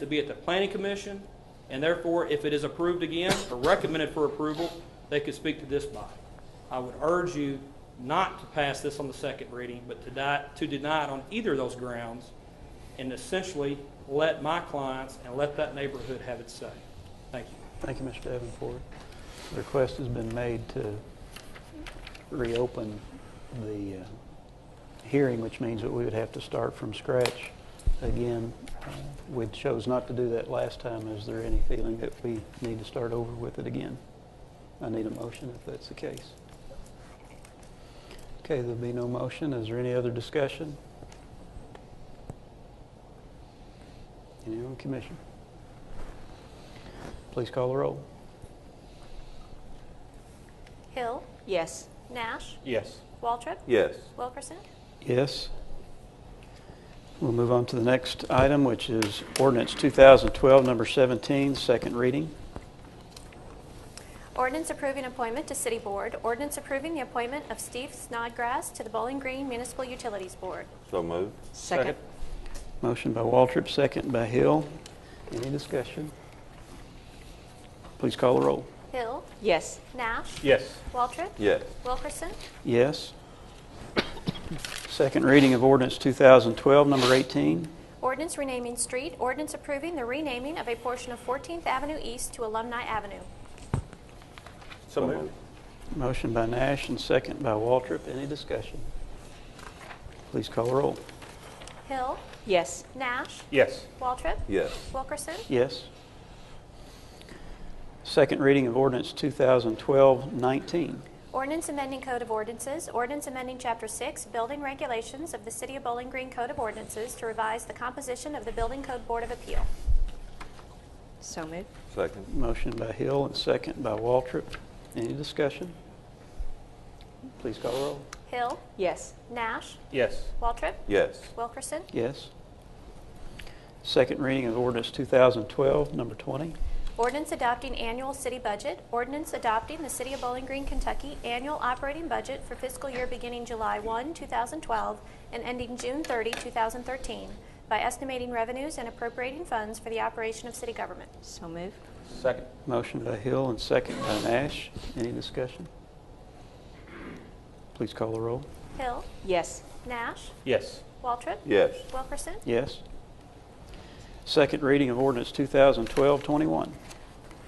to be at the planning commission, and therefore, if it is approved again or recommended for approval, they could speak to this body. I would urge you not to pass this on the second reading, but to di- to deny it on either of those grounds, and essentially let my clients and let that neighborhood have its say. Thank you. Thank you, Mr. Davenport. The Request has been made to reopen the uh, hearing, which means that we would have to start from scratch again. Uh, We chose not to do that last time. Is there any feeling that we need to start over with it again? I need a motion if that's the case. Okay, there'll be no motion. Is there any other discussion? Anyone, Commissioner? Please call the roll. Hill. Yes. Nash. Yes. Waltrip. Yes. Wilkerson. Yes. We'll move on to the next item, which is ordinance 2012, number 17, second reading. Ordinance approving appointment to City Board. Ordinance approving the appointment of Steve Snodgrass to the Bowling Green Municipal Utilities Board. So moved. Second. Motion by Waltrip, second by Hill. Any discussion? Please call the roll. Hill. Yes. Nash. Yes. Waltrip. Yes. Wilkerson. Yes. Second reading of ordinance 2012, number 18. Ordinance renaming street. Ordinance approving the renaming of a portion of 14th Avenue East to Alumni Avenue. So moved. Motion by Nash and second by Waltrip. Any discussion? Please call the roll. Hill. Yes. Nash. Yes. Waltrip. Yes. Wilkerson. Yes. Second reading of ordinance 2012-19. Ordinance amending Code of Ordinances, ordinance amending Chapter 6, Building Regulations of the City of Bowling Green Code of Ordinances to revise the composition of the Building Code Board of Appeal. So moved. Second. Motion by Hill and second by Waltrip. Any discussion? Please call the roll. Hill, Yes. Nash, Yes. Waltrip, Yes. Wilkerson. Yes. Second reading of ordinance 2012, number 20. Ordinance adopting annual city budget, ordinance adopting the City of Bowling Green, Kentucky annual operating budget for fiscal year beginning July 1, 2012, and ending June 30, 2013, by estimating revenues and appropriating funds for the operation of city government. So moved. Second. Motion by Hill and second by Nash. Any discussion? Please call the roll. Hill, Yes. Nash, Yes. Waltrip, Yes. Wilkerson. Yes. Second reading of ordinance 2012-21.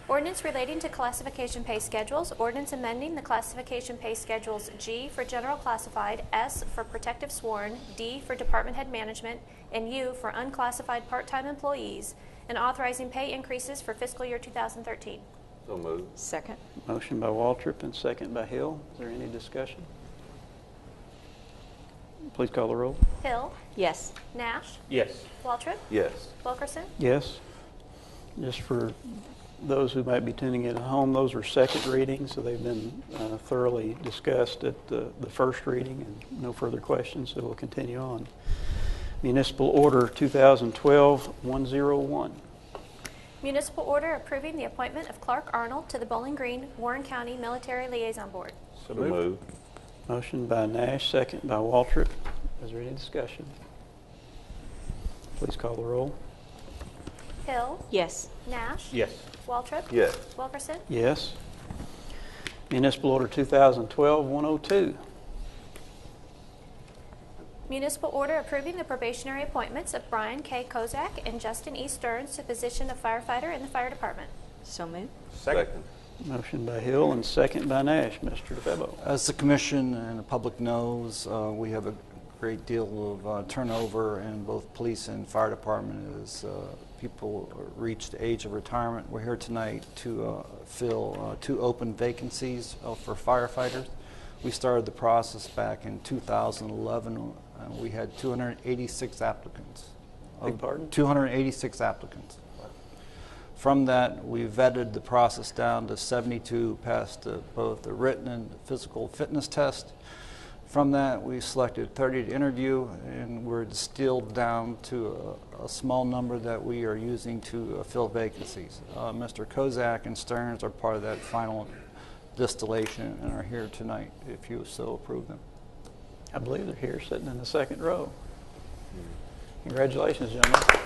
Ordinance relating to classification pay schedules, ordinance amending the classification pay schedules G for general classified, S for protective sworn, D for department head management, and U for unclassified part-time employees, and authorizing pay increases for fiscal year 2013. So moved. Second. Motion by Waltrip and second by Hill. Is there any discussion? Please call the roll. Hill, Yes. Nash, Yes. Waltrip, Yes. Wilkerson. Yes. Just for those who might be tuning in at home, those are second readings, so they've been uh, thoroughly discussed at the the first reading, and no further questions, so we'll continue on. Municipal Order 2012-101. Municipal order approving the appointment of Clark Arnold to the Bowling Green, Warren County Military Liaison Board. So moved. Motion by Nash, second by Waltrip. Is there any discussion? Please call the roll. Hill, Yes. Nash, Yes. Waltrip, Yes. Wilkerson. Yes. Municipal Order 2012-102. Municipal order approving the probationary appointments of Brian K. Kozak and Justin E. Stearns to position of firefighter in the fire department. So moved. Second. Motion by Hill and second by Nash. Mr. DeFebo. As the commission and the public knows, uh, we have a great deal of uh, turnover in both police and fire department as uh, people reach the age of retirement. We're here tonight to uh, fill uh, two open vacancies uh, for firefighters. We started the process back in 2011. Uh, We had 286 applicants. Beg pardon? 286 applicants. From that, we vetted the process down to 72 passed the- both the written and physical fitness test. From that, we selected 30 to interview, and we're distilled down to a, a small number that we are using to uh, fill vacancies. Uh, Mr. Kozak and Stearns are part of that final distillation and are here tonight if you so approve them. I believe they're here, sitting in the second row. Congratulations, gentlemen.